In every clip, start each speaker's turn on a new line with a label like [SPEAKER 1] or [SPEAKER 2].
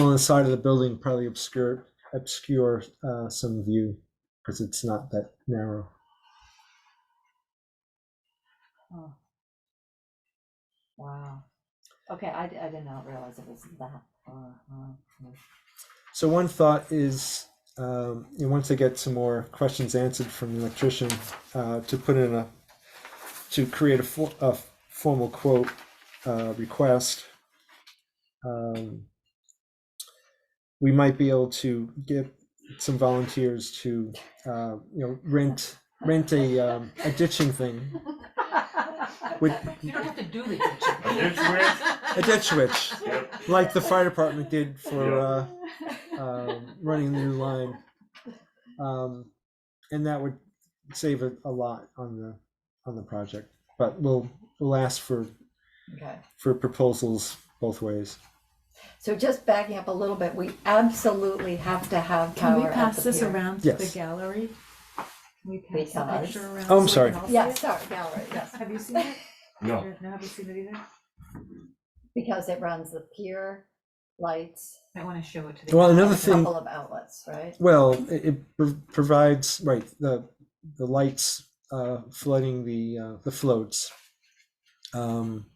[SPEAKER 1] on the side of the building probably obscure, obscure uh, some view because it's not that narrow.
[SPEAKER 2] Oh. Wow. Okay, I, d- I did not realize it was that far. huh.
[SPEAKER 1] So one thought is, um, you know, once I get some more questions answered from the electrician, uh, to put in a, to create a, for, a formal quote uh, request. Um, we might be able to get some volunteers to, uh, you know, rent rent a um, a ditching thing, with
[SPEAKER 3] You don't have to do the
[SPEAKER 4] A ditch
[SPEAKER 1] a ditch witch,
[SPEAKER 4] Yep.
[SPEAKER 1] like the fire department did for. Uh, um, running the new line. Um, and that would save a, a lot on the, on the project, but we'll, we'll ask for,
[SPEAKER 2] Okay.
[SPEAKER 1] for proposals both ways.
[SPEAKER 2] So just backing up a little bit, we absolutely have to have
[SPEAKER 3] Can we
[SPEAKER 2] power at
[SPEAKER 3] pass
[SPEAKER 2] the
[SPEAKER 3] this
[SPEAKER 2] pier.
[SPEAKER 3] around to the
[SPEAKER 1] Yes.
[SPEAKER 3] gallery? Can we pass the
[SPEAKER 2] Because-
[SPEAKER 3] picture around?
[SPEAKER 1] Oh, I'm
[SPEAKER 3] so
[SPEAKER 1] sorry.
[SPEAKER 3] we can all see
[SPEAKER 2] Yeah,
[SPEAKER 3] it?
[SPEAKER 2] sorry, gallery, yes,
[SPEAKER 3] Have you seen it?
[SPEAKER 4] No,
[SPEAKER 3] No, have you seen it either?
[SPEAKER 2] because it runs the pier, lights,
[SPEAKER 3] I want to show it to the.
[SPEAKER 1] Well, another
[SPEAKER 2] a
[SPEAKER 1] thing,
[SPEAKER 2] couple of outlets, right?
[SPEAKER 1] well, it, it pro- provides, right, the, the lights, uh, flooding the, uh, the floats. Um,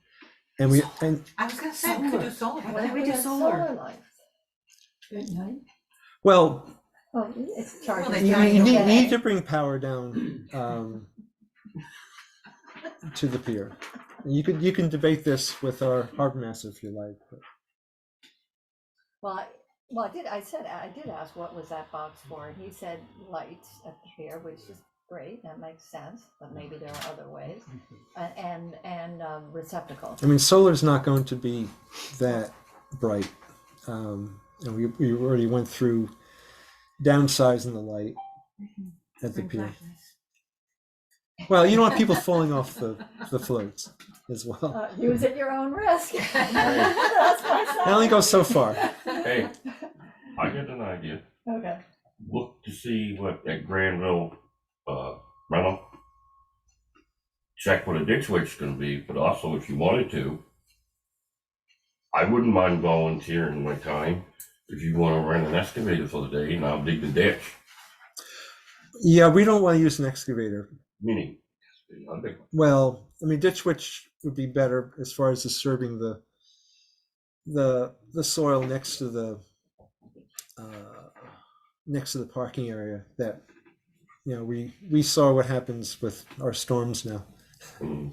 [SPEAKER 1] and we, and,
[SPEAKER 3] I was gonna
[SPEAKER 1] Oh,
[SPEAKER 3] say, we could do solar, why don't we do
[SPEAKER 2] have
[SPEAKER 3] solar?
[SPEAKER 2] lights? Good night.
[SPEAKER 1] well,
[SPEAKER 2] Oh, it's
[SPEAKER 3] they
[SPEAKER 2] charging.
[SPEAKER 1] You,
[SPEAKER 3] giant
[SPEAKER 1] you need,
[SPEAKER 2] today.
[SPEAKER 1] need to bring power down um, to the pier. You could you can debate this with our harbor master if you like. but-
[SPEAKER 2] Well, I- well, I did, I said, I did ask what was that box for, and he said lights at the pier, which is great, that makes sense, but maybe there are other ways. Uh, And, and um, receptacle,
[SPEAKER 1] I mean, solar's not going to be that bright, um, and we we already went through downsizing the light at the
[SPEAKER 3] Bring
[SPEAKER 1] pier.
[SPEAKER 3] flashlights.
[SPEAKER 1] Well, you don't want people falling off the the floats as well.
[SPEAKER 2] Uh, use at your own risk. That's my
[SPEAKER 1] I only
[SPEAKER 2] side.
[SPEAKER 1] go so far.
[SPEAKER 4] hey, I got an idea.
[SPEAKER 2] Okay,
[SPEAKER 4] Look to see what that Granville, uh, rental. Check what a ditch witch is gonna be, but also if you wanted to. I wouldn't mind volunteering my time if you wanna rent an excavator for the day and I'll dig the ditch.
[SPEAKER 1] Yeah, we don't want to use an excavator
[SPEAKER 4] Meaning, I'll dig,
[SPEAKER 1] Well, I mean, ditch witch would be better as far as disturbing the the the soil next to the uh, next to the parking area. That you know, we we saw what happens with our storms now.
[SPEAKER 4] mm,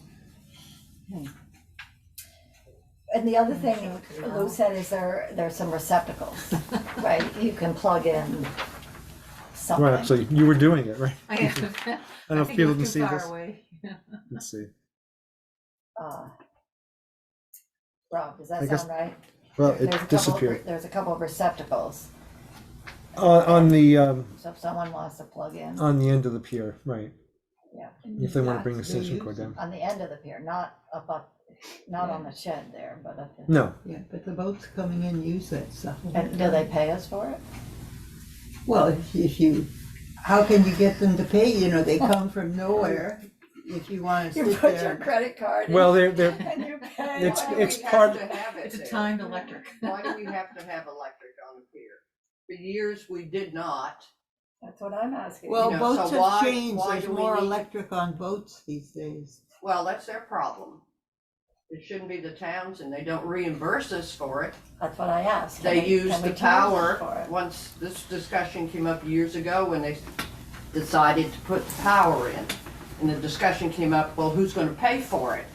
[SPEAKER 2] and the other thing
[SPEAKER 1] Mm-hmm.
[SPEAKER 3] Show it to the
[SPEAKER 2] Lou
[SPEAKER 3] owl.
[SPEAKER 2] said is there, there's some receptacles, right, you can plug in something.
[SPEAKER 1] Right, actually, you were doing it, right?
[SPEAKER 3] I
[SPEAKER 1] I don't know if
[SPEAKER 3] think
[SPEAKER 1] people
[SPEAKER 3] we're
[SPEAKER 1] can
[SPEAKER 3] too
[SPEAKER 1] see
[SPEAKER 3] far
[SPEAKER 1] this.
[SPEAKER 3] away.
[SPEAKER 1] Let's see.
[SPEAKER 2] uh, Rob, does
[SPEAKER 1] I
[SPEAKER 2] that
[SPEAKER 1] guess-
[SPEAKER 2] sound right?
[SPEAKER 1] Well, it
[SPEAKER 2] There's a couple of re-
[SPEAKER 1] disappeared
[SPEAKER 2] There's a couple of receptacles,
[SPEAKER 1] on, on the um,
[SPEAKER 2] so if someone wants to plug in,
[SPEAKER 1] on the end of the pier, right?
[SPEAKER 2] yeah,
[SPEAKER 1] If they want to bring the station cord down.
[SPEAKER 2] on the end of the pier, not up up, not on the shed there, but up in.
[SPEAKER 1] No,
[SPEAKER 5] Yeah, but the boats coming in use that stuff.
[SPEAKER 2] And do they pay us for it?
[SPEAKER 5] Well, if- if you, how can you get them to pay, you know, they come from nowhere, if you wanna
[SPEAKER 2] You
[SPEAKER 5] sit
[SPEAKER 2] put your
[SPEAKER 5] there.
[SPEAKER 2] credit card in
[SPEAKER 1] well, they're they're
[SPEAKER 2] and you pay.
[SPEAKER 1] it's
[SPEAKER 6] Why do we
[SPEAKER 1] it's
[SPEAKER 6] have
[SPEAKER 1] part.
[SPEAKER 6] to have it
[SPEAKER 3] It's a
[SPEAKER 6] there?
[SPEAKER 3] timed electric.
[SPEAKER 6] Why do we have to have electric on the pier? For years, we did not.
[SPEAKER 2] That's what I'm asking.
[SPEAKER 5] Well,
[SPEAKER 6] you know,
[SPEAKER 5] boats
[SPEAKER 6] so
[SPEAKER 5] have
[SPEAKER 6] why-
[SPEAKER 5] changed,
[SPEAKER 6] why
[SPEAKER 5] there's
[SPEAKER 6] do we
[SPEAKER 5] more
[SPEAKER 6] need-
[SPEAKER 5] electric on boats these days.
[SPEAKER 6] Well, that's their problem. It shouldn't be the towns and they don't reimburse us for it.
[SPEAKER 2] That's what I asked. Can
[SPEAKER 6] They
[SPEAKER 2] we-
[SPEAKER 6] use
[SPEAKER 2] can we
[SPEAKER 6] the
[SPEAKER 2] charge them
[SPEAKER 6] power.
[SPEAKER 2] for
[SPEAKER 6] Once this discussion came up years ago when they decided to put power in. And the discussion came up, well, who's gonna pay for it?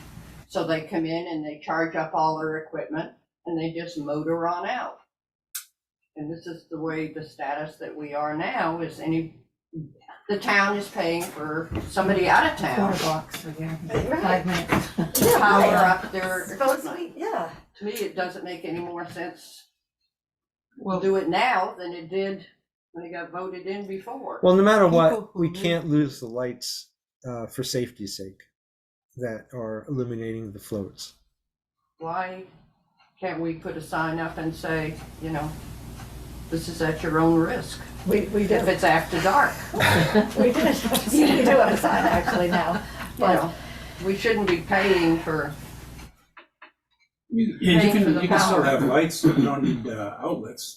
[SPEAKER 6] So they come in and they charge up all their equipment and they just motor on out. And this is the way the status that we are now is any, the town is paying for somebody out of
[SPEAKER 3] Quarter
[SPEAKER 6] town.
[SPEAKER 3] blocks, right there.
[SPEAKER 2] it?
[SPEAKER 3] five minutes.
[SPEAKER 2] Yeah,
[SPEAKER 6] to Power
[SPEAKER 2] right.
[SPEAKER 6] up their
[SPEAKER 2] Supposed to
[SPEAKER 6] equipment.
[SPEAKER 2] be, yeah.
[SPEAKER 6] To me, it doesn't make any more sense
[SPEAKER 5] Well,
[SPEAKER 6] do it now than it did when it got voted in before.
[SPEAKER 1] Well, no matter
[SPEAKER 5] People
[SPEAKER 1] what,
[SPEAKER 5] who
[SPEAKER 1] we
[SPEAKER 5] live-
[SPEAKER 1] can't lose the lights uh, for safety's sake that are illuminating the floats.
[SPEAKER 6] Why can't we put a sign up and say, you know, this is at your own risk,
[SPEAKER 2] We, we
[SPEAKER 6] if it's after dark,
[SPEAKER 2] We did. We do have a sign actually now,
[SPEAKER 6] you
[SPEAKER 2] but
[SPEAKER 6] know? We shouldn't be paying for
[SPEAKER 7] You- Yeah, you
[SPEAKER 6] Paying for
[SPEAKER 7] can,
[SPEAKER 6] the
[SPEAKER 7] you can still
[SPEAKER 6] power.
[SPEAKER 7] have lights, but you don't need uh, outlets.